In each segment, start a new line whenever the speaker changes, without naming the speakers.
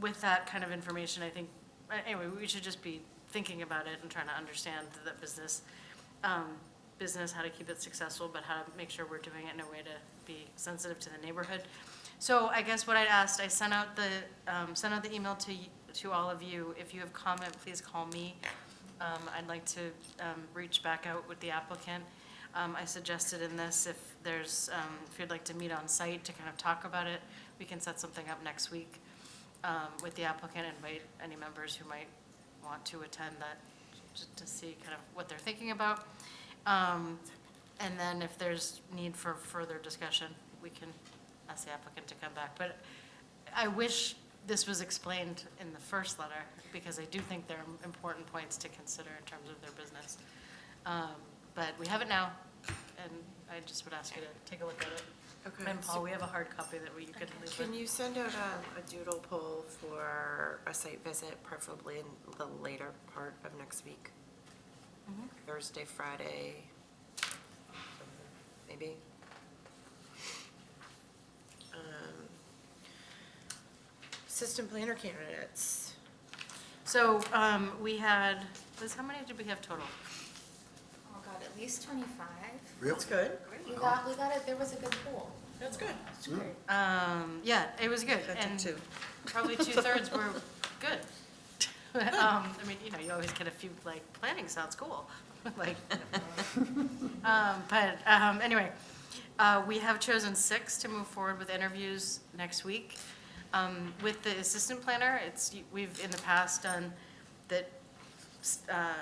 with that kind of information, I think, uh, anyway, we should just be thinking about it and trying to understand the business, um, business, how to keep it successful, but how to make sure we're doing it in a way to be sensitive to the neighborhood. So I guess what I'd asked, I sent out the, um, sent out the email to, y- to all of you. If you have comment, please call me. Um, I'd like to, um, reach back out with the applicant. Um, I suggested in this, if there's, um, if you'd like to meet on site to kind of talk about it, we can set something up next week um, with the applicant, invite any members who might want to attend that, just to see kind of what they're thinking about. Um, And then if there's need for further discussion, we can ask the applicant to come back. But I wish this was explained in the first letter, because I do think there are important points to consider in terms of their business. Um, But we have it now, and I just would ask you to take a look at it.
Okay.
And Paul, we have a hard copy that we you could leave
Can
with.
you send out um, a doodle poll for a site visit, preferably in the later part of next week?
Mm-hmm.
Thursday, Friday, maybe? Um, System planner candidates.
So um, we had, Liz, how many did we have total?
Oh god, at least twenty-five.
That's good.
We got, we got it, there was a good pool.
That's good.
Um, Yeah, it was good.
That took
And
two.
probably two-thirds were good. Um, I mean, you know, you always get a few, like, planning sounds cool, like. um, But um, anyway, uh, we have chosen six to move forward with interviews next week. Um, With the assistant planner, it's, we've in the past done that uh,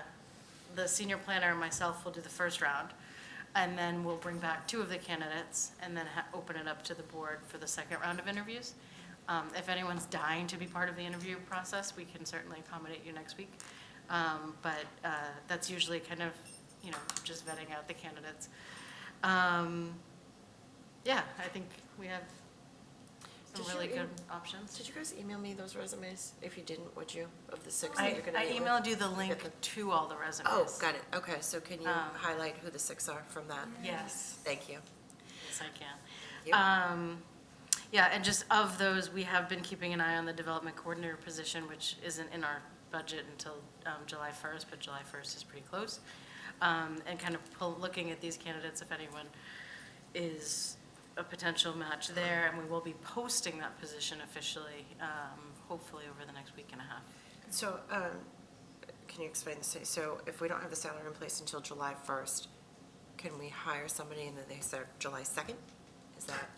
the senior planner and myself will do the first round. And then we'll bring back two of the candidates and then ha- open it up to the board for the second round of interviews. Um, If anyone's dying to be part of the interview process, we can certainly accommodate you next week. Um, But uh, that's usually kind of, you know, just vetting out the candidates. Um, Yeah, I think we have some
Did you e-,
really good
em-
options.
Did you guys email me those resumes? If you didn't, would you, of the six that
I
you're gonna
I
meet with?
emailed you the link to all the resumes.
Oh, got it. Okay, so can you
Um,
highlight who the six are from that?
Yes.
Thank you.
Yes, I can.
Yep.
Um, Yeah, and just of those, we have been keeping an eye on the development coordinator position, which isn't in our budget until um, July 1st, but July 1st is pretty close. Um, And kind of pull, looking at these candidates, if anyone is a potential match there, and we will be posting that position officially, um, hopefully over the next week and a half.
So, um, can you explain this? So if we don't have the salary in place until July first, can we hire somebody and then they start July second? Is that,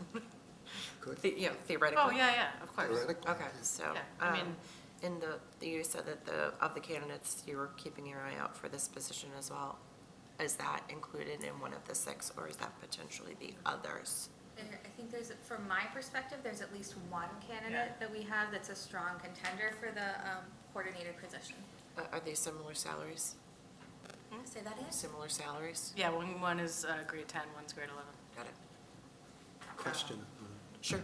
Good.
the- you know, theoretically?
Oh, yeah, yeah, of course.
Theoretically.
Okay, so,
Yeah, I
um,
mean-
in the, you said that the, of the candidates, you were keeping your eye out for this position as well. Is that included in one of the six, or is that potentially the others?
There, I think there's, from my perspective, there's at least one candidate that we have that's a strong contender for the, um, coordinator position.
Uh, Are they similar salaries?
Say that is?
Similar salaries?
Yeah, one, one is uh, grade 10, one's grade 11.
Got it.
Question
Sure.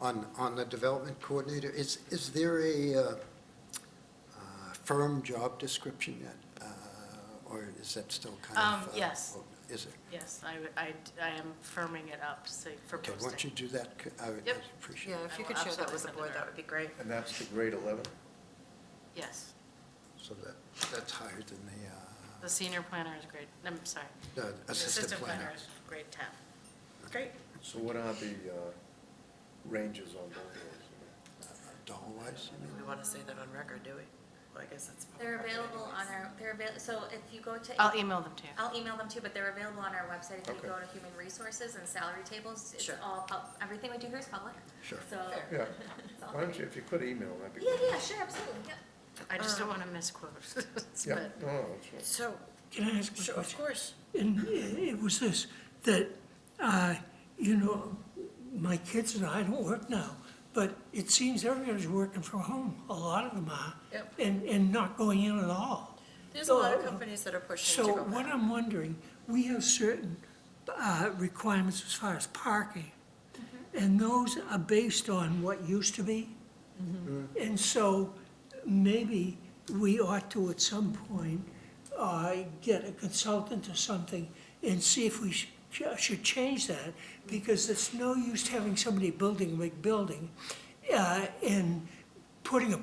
Uh, on, on the development coordinator, is, is there a uh, uh, firm job description yet? Uh, Or is that still kind of?
Um,
uh,
yes.
Is it?
Yes, I, would- I, I am firming it up, say, for
Okay,
posting.
why don't you do that? C- I would
Yep.
I'd appreciate
Yeah,
it.
if
I
you
will
could share that
absolutely
with the
send it
board, that
out.
would be great.
And that's the grade 11?
Yes,
So that, that's higher than the,
the senior planner is grade, I'm sorry.
uh, the
the
assistant planner.
is grade 10.
Great.
So what are the uh, ranges on both of those?
Dollar-wise, uh, you mean?
We want to say that on record, do we? Well, I guess that's. public
They're
record
available on
anyways.
our, they're avail, so if you go to.
I'll email them to you.
I'll email them too, but they're available on our website. If you go
Okay.
to human resources and salary tables, it's
Sure.
all, pub- everything we do here is public.
Sure.
So.
Fair.
Yeah,
it's all
why don't
there.
you, if you could email, that'd be
Yeah,
great.
yeah, sure, absolutely, yeah.
I just don't want to misquote. but-
no, no, that's right.
So,
Can I ask a
sure, of
question?
course.
And uh, it was this, that, uh, you know, my kids and I don't work now, but it seems everybody's working from home, a lot of them are.
Yep.
And, and not going in at all.
There's a lot of
So-
companies that are pushing to
So
go
what
back.
I'm wondering, we have certain uh, requirements as far as parking,
Mm-hmm.
and those are based on what used to be. And so maybe we ought to, at some point, uh, get a consultant or something and see if we sh- sh- should change that, because it's no use having somebody building a big building uh, and putting a